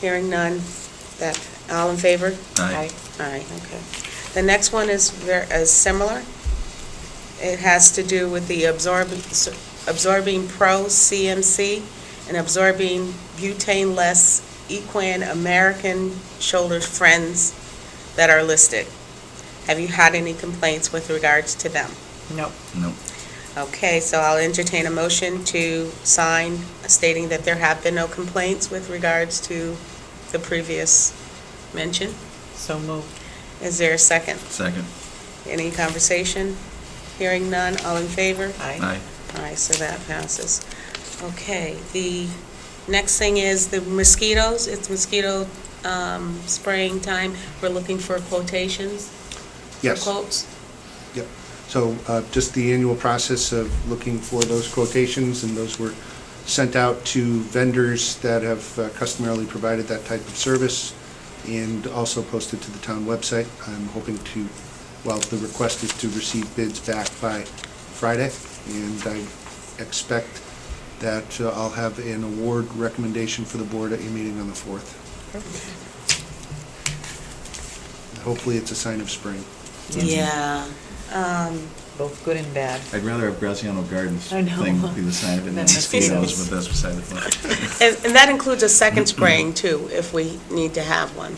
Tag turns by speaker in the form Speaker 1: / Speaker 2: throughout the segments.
Speaker 1: Hearing none, that, all in favor?
Speaker 2: Aye.
Speaker 1: Aye, okay. The next one is ver, is similar. It has to do with the absorb, absorbing pro CMC and absorbing butane-less equine American shoulder friends that are listed. Have you had any complaints with regards to them?
Speaker 3: No.
Speaker 2: No.
Speaker 1: Okay, so I'll entertain a motion to sign stating that there have been no complaints with regards to the previous mention.
Speaker 3: So moved.
Speaker 1: Is there a second?
Speaker 2: Second.
Speaker 1: Any conversation? Hearing none, all in favor?
Speaker 2: Aye.
Speaker 1: All right, so that passes. Okay, the next thing is the mosquitoes, it's mosquito um, spraying time. We're looking for quotations? for
Speaker 4: Yes.
Speaker 1: Quotes?
Speaker 4: Yep. So uh, just the annual process of looking for those quotations, and those were sent out to vendors that have uh, customarily provided that type of service, and also posted to the town website. I'm hoping to, well, the request is to receive bids back by Friday, and I expect that uh, I'll have an award recommendation for the board at your meeting on the 4th. Hopefully, it's a sign of spring.
Speaker 1: Yeah. Um,
Speaker 3: Both good and bad.
Speaker 2: I'd rather have Graziano Gardens
Speaker 3: I know.
Speaker 2: thing be the sign of it than
Speaker 3: Than
Speaker 2: mosquitoes,
Speaker 1: mosquitoes.
Speaker 2: but that's beside the point.
Speaker 1: And and that includes a second spraying, too, if we need to have one.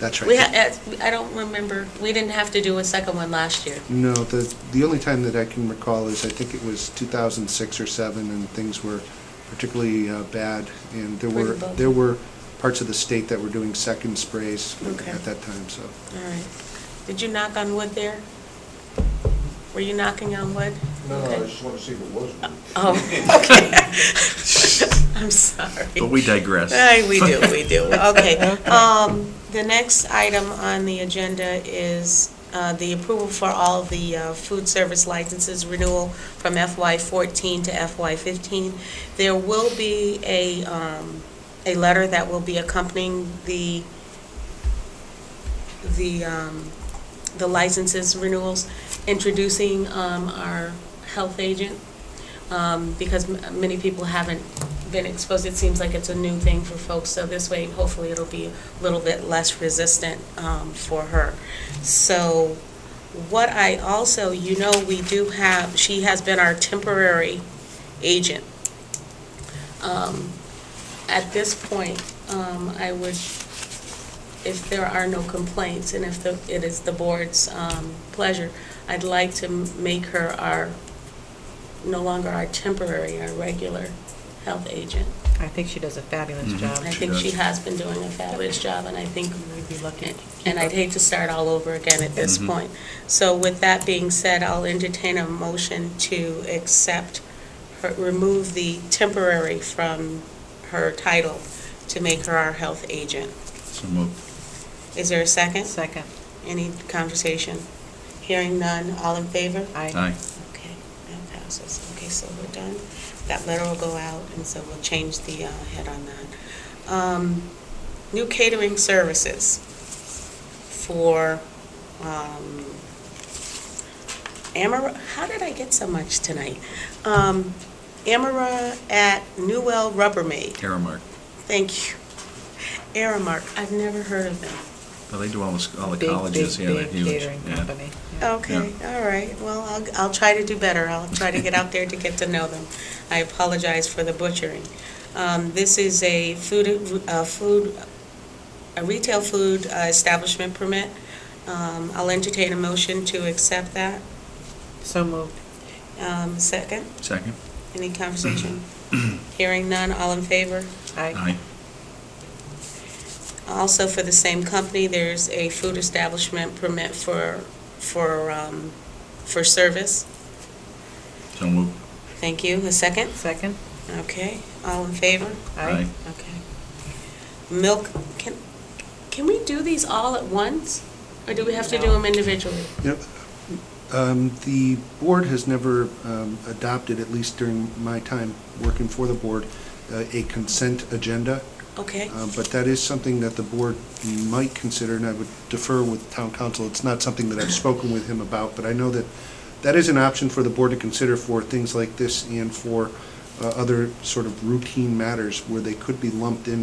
Speaker 4: That's right.
Speaker 1: We, ha- eh, I don't remember, we didn't have to do a second one last year.
Speaker 4: No, the, the only time that I can recall is, I think it was 2006 or 7, and things were particularly uh, bad, and there were,
Speaker 1: Pretty bad.
Speaker 4: there were parts of the state that were doing second sprays
Speaker 1: Okay.
Speaker 4: at that time, so.
Speaker 1: All right. Did you knock on wood there? Were you knocking on wood?
Speaker 5: No, no, I
Speaker 1: Okay.
Speaker 5: just want to see if it was.
Speaker 1: Oh, okay. I'm sorry.
Speaker 2: Mm-hmm. But we digress.
Speaker 1: Aye, we do, we do. Okay. Um, The next item on the agenda is uh, the approval for all the uh, food service licenses renewal from FY14 to FY15. There will be a, um, a letter that will be accompanying the, the, um, the licenses renewals, introducing um, our health agent, um, because m- many people haven't been exposed. It seems like it's a new thing for folks, so this way, hopefully, it'll be a little bit less resistant um, for her. So what I also, you know, we do have, she has been our temporary agent. Um, At this point, um, I would, if there are no complaints, and if the- it is the board's um, pleasure, I'd like to m- make her our, no longer our temporary, our regular health agent.
Speaker 3: I think she does a fabulous
Speaker 2: Mhm.
Speaker 3: job.
Speaker 1: I
Speaker 2: She
Speaker 1: think she
Speaker 2: does.
Speaker 1: has been doing a fabulous job, and I think,
Speaker 3: We'd be lucky. to keep
Speaker 1: and I'd
Speaker 3: up.
Speaker 1: hate to start all over again at this
Speaker 2: Mhm.
Speaker 1: point. So with that being said, I'll entertain a motion to accept, her- remove the temporary from her title to make her our health agent.
Speaker 2: So moved.
Speaker 1: Is there a second?
Speaker 3: Second.
Speaker 1: Any conversation? Hearing none, all in favor?
Speaker 3: Aye.
Speaker 2: Aye.
Speaker 1: Okay, that passes. Okay, so we're done. That letter will go out, and so we'll change the uh, head on that. Um, New catering services for um, Amara, how did I get so much tonight? Um, Amara at Newell Rubbermaid,
Speaker 2: Aramark.
Speaker 1: thank you. Aramark, I've never heard of them.
Speaker 2: Well, they do all the, sc- all the
Speaker 3: Big,
Speaker 2: colleges,
Speaker 3: big,
Speaker 2: yeah, they're
Speaker 3: big
Speaker 2: huge.
Speaker 3: catering
Speaker 2: Yeah.
Speaker 3: company. Yeah.
Speaker 1: Okay, all right. Well, I'll, I'll try to do better. I'll try to get out there to get to know them. I apologize for the butchering. Um, This is a food, a food, a retail food uh, establishment permit. Um, I'll entertain a motion to accept that.
Speaker 3: So moved.
Speaker 1: Um, Second,
Speaker 2: Second?
Speaker 1: any conversation? Hearing none, all in favor?
Speaker 3: Aye.
Speaker 2: Aye.
Speaker 1: Also, for the same company, there's a food establishment permit for, for, um, for service.
Speaker 2: So moved.
Speaker 1: Thank you. A second?
Speaker 3: Second.
Speaker 1: Okay, all in favor?
Speaker 3: Aye.
Speaker 1: Okay. Milk, can, can we do these all at once? Or do we have to do
Speaker 3: No.
Speaker 1: them individually?
Speaker 4: Yep. Um, The board has never um, adopted, at least during my time working for the board, uh, a consent agenda.
Speaker 1: Okay,
Speaker 4: Uh, But that is something that the board might consider, and I would defer with town council. It's not something that I've spoken with him about, but I know that that is an option for the board to consider for things like this and for uh, other sort of routine matters where they could be lumped in